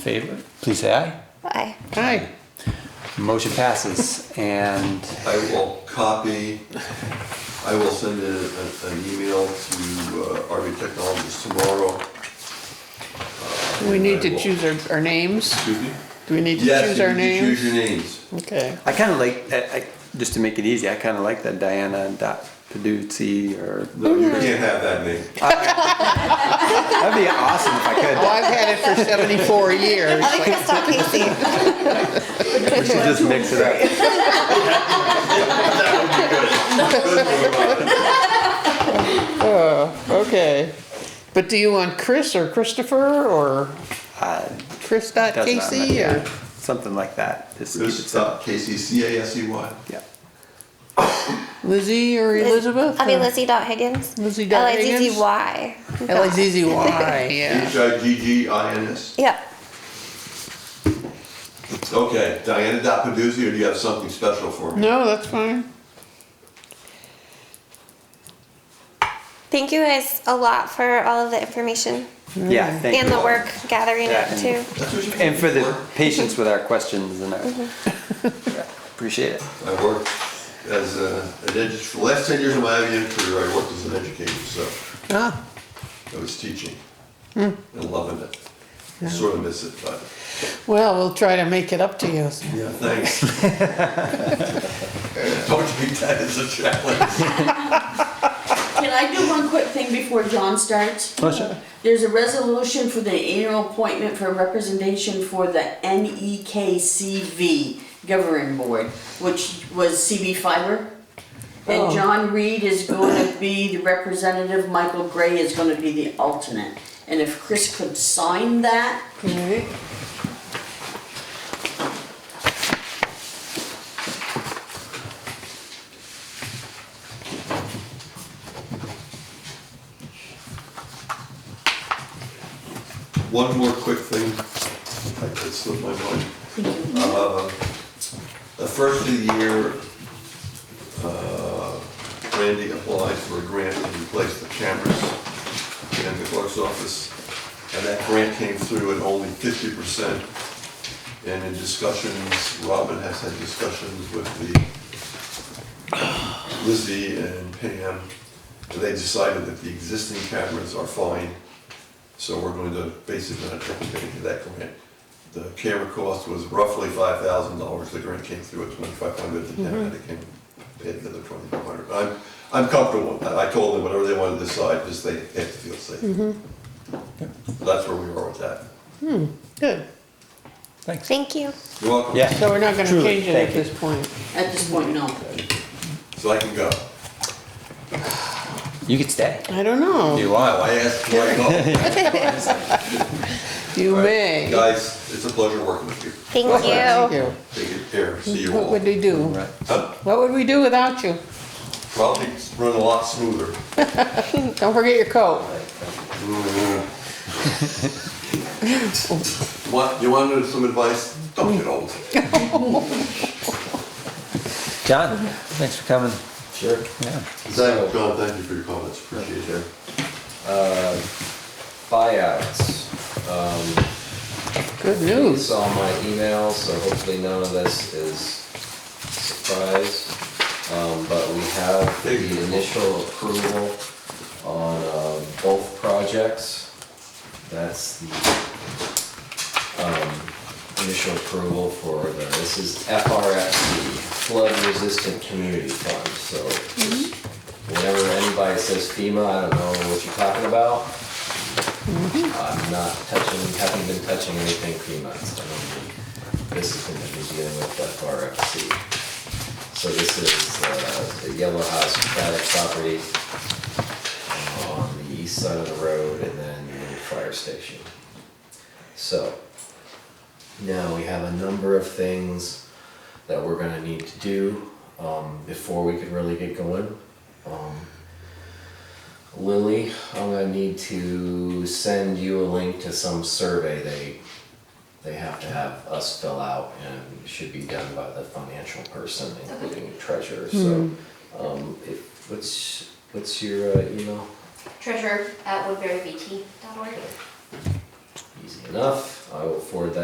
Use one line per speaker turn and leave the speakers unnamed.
favor, please say aye.
Aye.
Aye. Motion passes, and
I will copy, I will send a- a- an email to uh, RV Technologies tomorrow.
Do we need to
I will-
choose our, our names?
Excuse me?
Do we need to
Yes,
choose
you
our
need to choose
names?
your names.
Okay.
I kind of like, I, I, just to make it easy, I kind of like that Diana dot Paduzzi or,
No, you can't have that name.
that'd be awesome if I
Well,
could.
I've had it for seventy-four years.
I like Crystal Casey.
We should just mix it up.
Okay. But do you want Chris or Christopher or
Uh,
Chris dot
doesn't matter,
E
Casey
yeah.
or?
Something like that, just keep it
Chris
simple,
dot Casey, C-A-S-E-Y.
yeah.
Lizzie or Elizabeth?
I mean Lizzie dot Higgins.
Lizzie dot
L I Z Z Y.
L-I-Z-Z-Y, yeah.
H-I-G-G-I-N-S.
Yeah.
Okay, Diana dot Paduzzi, or do you have something special for me?
No, that's fine.
Thank you guys a lot for all of the information
Yeah, thank you.
and the
all.
work gathering
Yeah,
it
and-
too.
That's what you
And for the
work.
patience with our questions and our,
Mm-hmm.
appreciate it.
I worked as a, an edu, for the last ten years of my IBM career, I worked as an educator, so
Ah,
I was teaching and loving it. Sort of miss it, but.
well, we'll try to make it up to you.
Yeah, thanks. Don't take that as a challenge.
Can I do one quick thing before John starts? There's a resolution for the annual appointment for representation for the E NEKCV governing board, which was CB Fiber. And John Reed is going to be the representative, Michael Gray is going to be the alternate. And if Chris could sign that,
Okay.
One more quick thing, I could slip my mind. Uh, The first of the year, uh, Randy applied for a grant to replace the cameras in the clerk's office. And that grant came through at only fifty percent. And in discussions, Robin has had discussions with the Lizzie and Pam, and they decided that the existing cameras are fine, so we're going to basically not take advantage of that grant. The camera cost was roughly five thousand dollars, the grant came through at twenty-five hundred, the town
Mm-hmm.
had to came, paid another twenty-five hundred. I'm, I'm comfortable, with that. I told them whatever they wanted to decide, just they have to feel safe.
Mm-hmm.
That's where we are with that.
Good.
Thank you.
You're welcome.
Yeah.
So we're not gonna
Truly,
change it at
thank you.
this point.
at this point, no.
So I can go.
You could stay.
I don't know.
You want.
I asked, do I go?
You may.
Guys, it's a pleasure working with you.
Thank
Thank
you.
you.
Take good care, see you
What
all.
would we do?
Right.
Huh?
What would we do without you?
Probably run a lot smoother.
Don't forget your coat.
Want, you wanted some advice? Don't get old.
John, thanks for coming.
Sure.
Yeah.
Thank, John, thank you for your comments, appreciate it.
Buyouts.
Good
You
news.
saw my email, so hopefully none of this is surprise. Um, but we have the initial approval on, uh, both projects. That's the, um, initial approval for the, this is FRFC, Flood Resistant Community Fund, so whenever anybody says FEMA, I don't know what you're talking about. I'm not touching, haven't been touching anything FEMA, so I don't think this is gonna be dealing with FRFC. So this is, uh, the Yellow House private property uh, on the east side of the road and then the new fire station. So, now we have a number of things that we're gonna need to do, um, before we can really get going. Um, Lily, I'm gonna need to send you a link to some survey they, they have to have us fill out and it should be done by the financial person, including treasurer, so. Um, if, what's, what's your uh, email?
treasurer at woodburyvt.org.
Easy enough, I will forward that